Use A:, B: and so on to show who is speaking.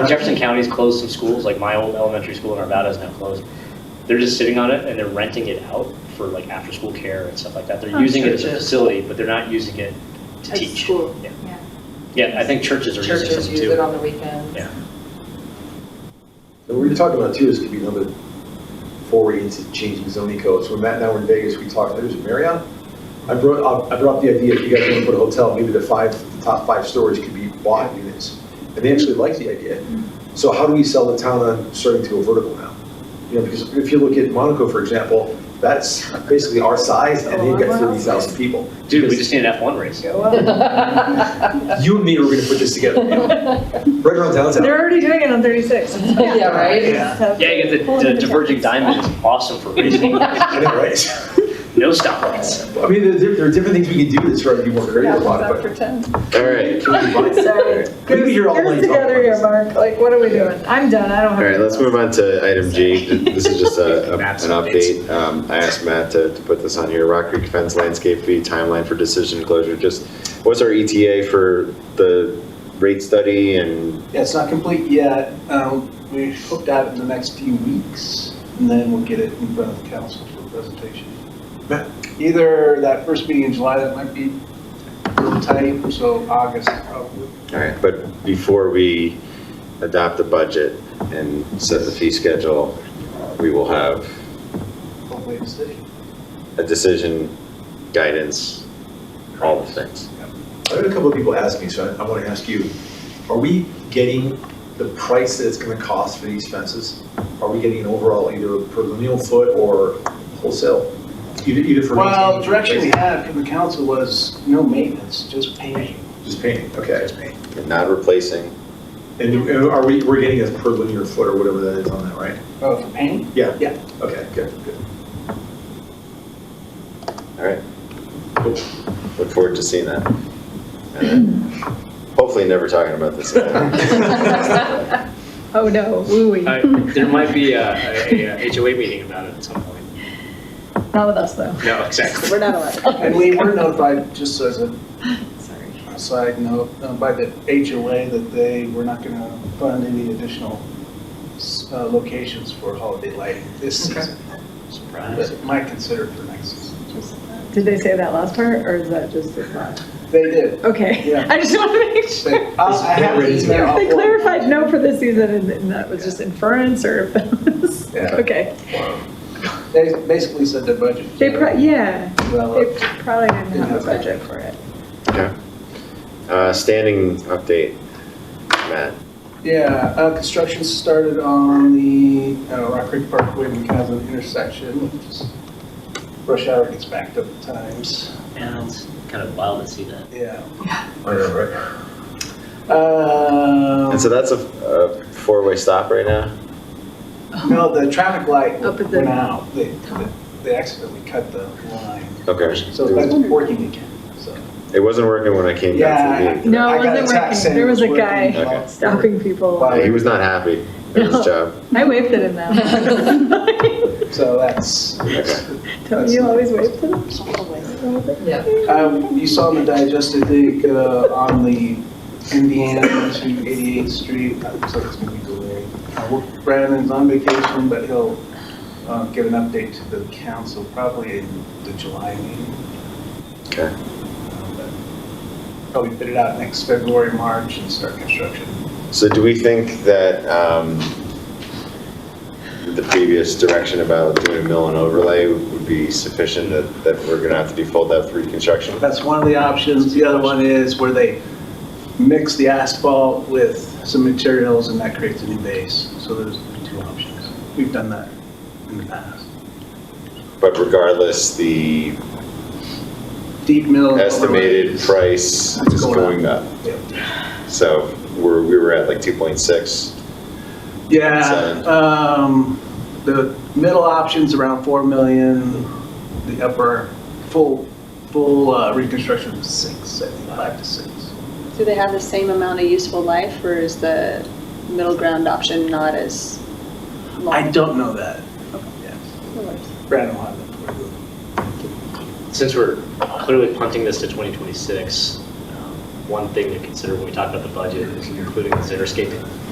A: Like Jefferson County's closed some schools, like my old elementary school in Arvada is now closed. They're just sitting on it and they're renting it out for like after-school care and stuff like that. They're
B: I'm
A: using it
B: sure
A: as a
B: it is.
A: facility, but they're not using it to
B: As
A: teach.
B: school.
A: Yeah. Yeah, I think churches are using
B: Churches
A: some
B: use it
A: too.
B: on the weekends.
A: Yeah.
C: And what you're talking about too is could be another foray into changing zoning codes. When Matt and I were in Vegas, we talked, there's Marriott. I brought, up- I brought up the idea, if you guys want to put a hotel, maybe the five, the top five stories could be bought units. And they actually liked the idea. So how do we sell the town on starting to go vertical now? You know, because if you look at Monaco, for example, that's basically our size and they've got thirty thousand people.
A: Dude, we just need an F1 race.
C: You and me are gonna put this together. Right around downtown.
D: They're already doing it on 36.
B: Yeah, right?
C: Yeah,
A: Yeah, you get the- the diverging diamond is awesome for racing.
C: I know, right?
A: No stoplights.
C: I mean, there, there- there are different things we can do that's right, be more creative about it,
D: After 10.
E: All right,
C: but. Can we combine-
D: Sorry.
C: We could be here all
D: Get us
C: night talking
D: together
C: about
D: here,
C: this.
D: Mark. Like, what are we doing? I'm done. I don't
E: all
D: have.
E: right, let's move on to item G. This is just a, a- an
A: Maps
E: update. Um, I asked Matt to, to put this on here. Rock Creek fence landscape fee timeline for decision closure. Just, what's our ETA for the rate study and,
F: Yeah, it's not complete yet. Um, We hooked out in the next few weeks, and then we'll get it in front of the council for presentation.
C: Matt?
F: Either that first meeting in July, that might be a little tight, so August probably.
E: all right, but before we adopt the budget and set the fee schedule, we will have
F: hopefully it's the-
E: a decision, guidance, all the things.
C: I had a couple of people ask me, so I, I want to ask you, are we getting the price that it's going to cost for these fences? Are we getting an overall either per lineal foot or wholesale? Either, either for.
F: Well,
C: maintaining-
F: direction we had from the council was no maintenance, just paving.
C: Just painting, okay.
E: And not replacing,
C: And and are we, we're getting a per linear foot or whatever that is on that, right?
F: Oh, for paint?
C: Yeah.
F: Yeah.
C: Okay, good, good.
E: all right. Look forward to seeing that. And Hopefully never talking about this again.
D: Oh, no. Woo-wee.
G: I- There might be a-
A: uh,
G: a a HOA meeting about it at some point.
D: Not with us, though.
G: No, exactly.
D: We're not allowed.
F: And we were notified, just as a
D: Sorry.
F: a side note, uh, by the HOA that they were not going to fund any additional s- uh, locations for holiday lighting this season.
G: Surprise.
F: But might consider for next season.
D: Did they say that last part, or is that just it's not?
F: They did.
D: Okay.
F: Yeah.
D: I just want to make sure.
F: They- I I have an email. I'll
D: They
F: forward it.
D: clarified no for this season, and- and that was just inference, or if that was,
F: Yeah.
D: okay.
F: They basically said their budget.
D: They pro, yeah, they
F: Well,
D: probably didn't have a budget for it.
E: Yeah. Uh, standing update, Matt.
F: Yeah, uh, construction started on the uh, Rock Creek Parkway and Casa intersection, which is rush hour gets backed up at times.
A: And it's kind of wild to see that.
F: Yeah.
C: I know, right?
F: Um,
E: And so that's a, a four-way stop right now?
F: No, the traffic light
D: Up at the-
F: went out. They, they- they accidentally cut the line.
E: Okay.
F: So that's working again, so.
E: It wasn't working when I came
F: Yeah.
E: down to the meeting.
D: No, it
F: I got a
D: wasn't
F: text
D: working.
F: saying
D: There
F: it
D: was a guy
F: working.
E: Okay.
D: Stopping people.
F: Wow.
E: Yeah, He was not happy with his
D: No.
E: job.
D: I waved at him though.
F: So that's,
D: Don't you always wave to them?
B: Yeah.
F: um, you saw in the digest, I think, uh, on the Indiana to 88th Street, that looks like it's gonna be delayed. Uh, we're- Brandon's on vacation, but he'll, uh, give an update to the council probably in the July meeting.
E: Okay.
F: Um, but Probably put it out next February, March and start construction.
E: So do we think that um, the previous direction about doing mill and overlay would be sufficient, that that we're going to have to default that for reconstruction?
F: That's one of the options. The other one is where they mix the asphalt with some materials and that creates a new base. So there's two options. We've done that in the past.
E: But regardless, the
F: Deep
E: Oh,
F: mill.
E: estimated price
F: It's
E: is
F: going
E: going up.
F: Yep.
E: So we're, we were at like 2.6.
F: Yeah,
E: Seven.
F: um, the middle option's around 4 million, the upper, full, full uh, reconstruction is 6, I think, 5 to 6.
H: Do they have the same amount of useful life, or is the middle ground option not as long?
F: I don't know that. Yes.
H: No worries.
F: Brandon will have that for you.
G: Since we're clearly punting this to 2026, um, one thing to consider when we talk about the budget is including the xeriscaping.